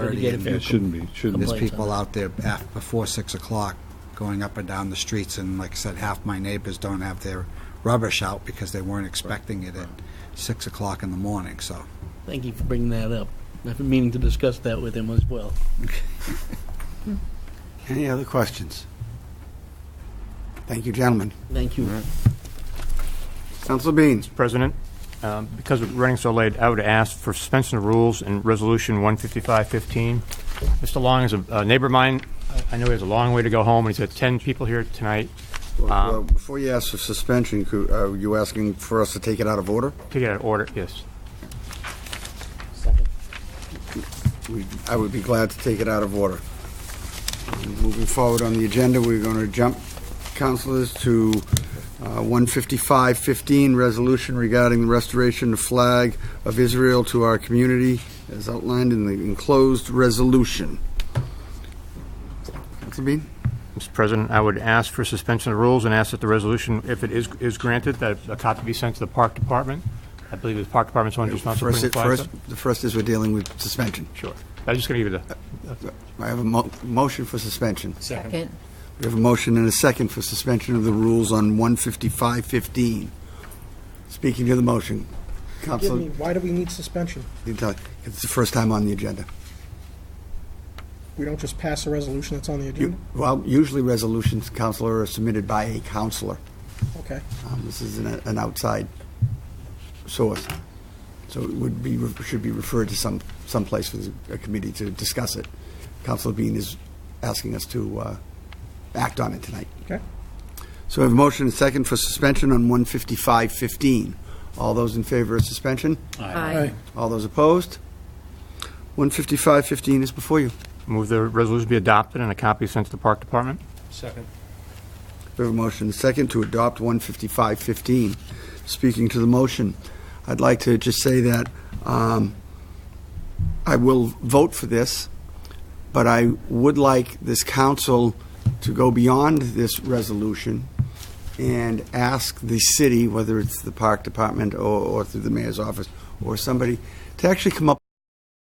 30 and Yeah, it shouldn't be, shouldn't This be. Complaints There's on people out there af- before 6 o'clock going up and down the streets, and like I said, half my neighbors don't have their rubbish out because they weren't expecting it at 6 o'clock in the morning, so. Thank you for bringing that up. I've been meaning to discuss that with him as well. Any other questions? Thank you, gentlemen. Thank you. Council Bean, President, um, because we're running so late, I would ask for suspension of rules in Resolution 15515. Mr. Long is a a neighbor of mine. I I know he has a long way to go home, and he's got 10 people here tonight. Well, well, Before you ask for suspension, cou- are you asking for us to take it out of order? To get an order, yes. We- I would be glad to take it out of order. moving forward on the agenda, we're going to jump, councilors, to uh, 155-15, resolution regarding the restoration of flag of Israel to our community, as outlined in the enclosed resolution. Council Bean? Mr. President, I would ask for suspension of rules and ask that the resolution, if it is is granted, that a copy be sent to the Park Department. I believe the Park Department's one who's responsible for First, putting it- the flags first, up. the first is we're dealing with suspension. Sure. I'm just going to give you I have a mo- motion for suspension. Second. We have a motion and a second for suspension of the rules on 155-15. Speaking to the motion, Give me, Counselor, why do we need suspension? Vitale, it's the first time on the agenda. We don't just pass a resolution that's on the You- agenda? Well, usually resolutions, Counselor, are submitted by a counselor. Okay. Um, This is an an outside source, so it would be, should be referred to some, someplace for the committee to discuss it. Counselor Bean is asking us to uh, act on it tonight. Okay. So we have a motion and second for suspension on 155-15. All those in favor of suspension? Aye. All those opposed? 155-15 is before you. the, move the resolution be adopted and a copy sent to the Park Department. We have a motion and second to adopt 155-15. Speaking to the motion, I'd like to just say that um, I will vote for this, but I would like this council to go beyond this resolution and ask the city, whether it's the park department or or through the mayor's office or somebody, to actually come up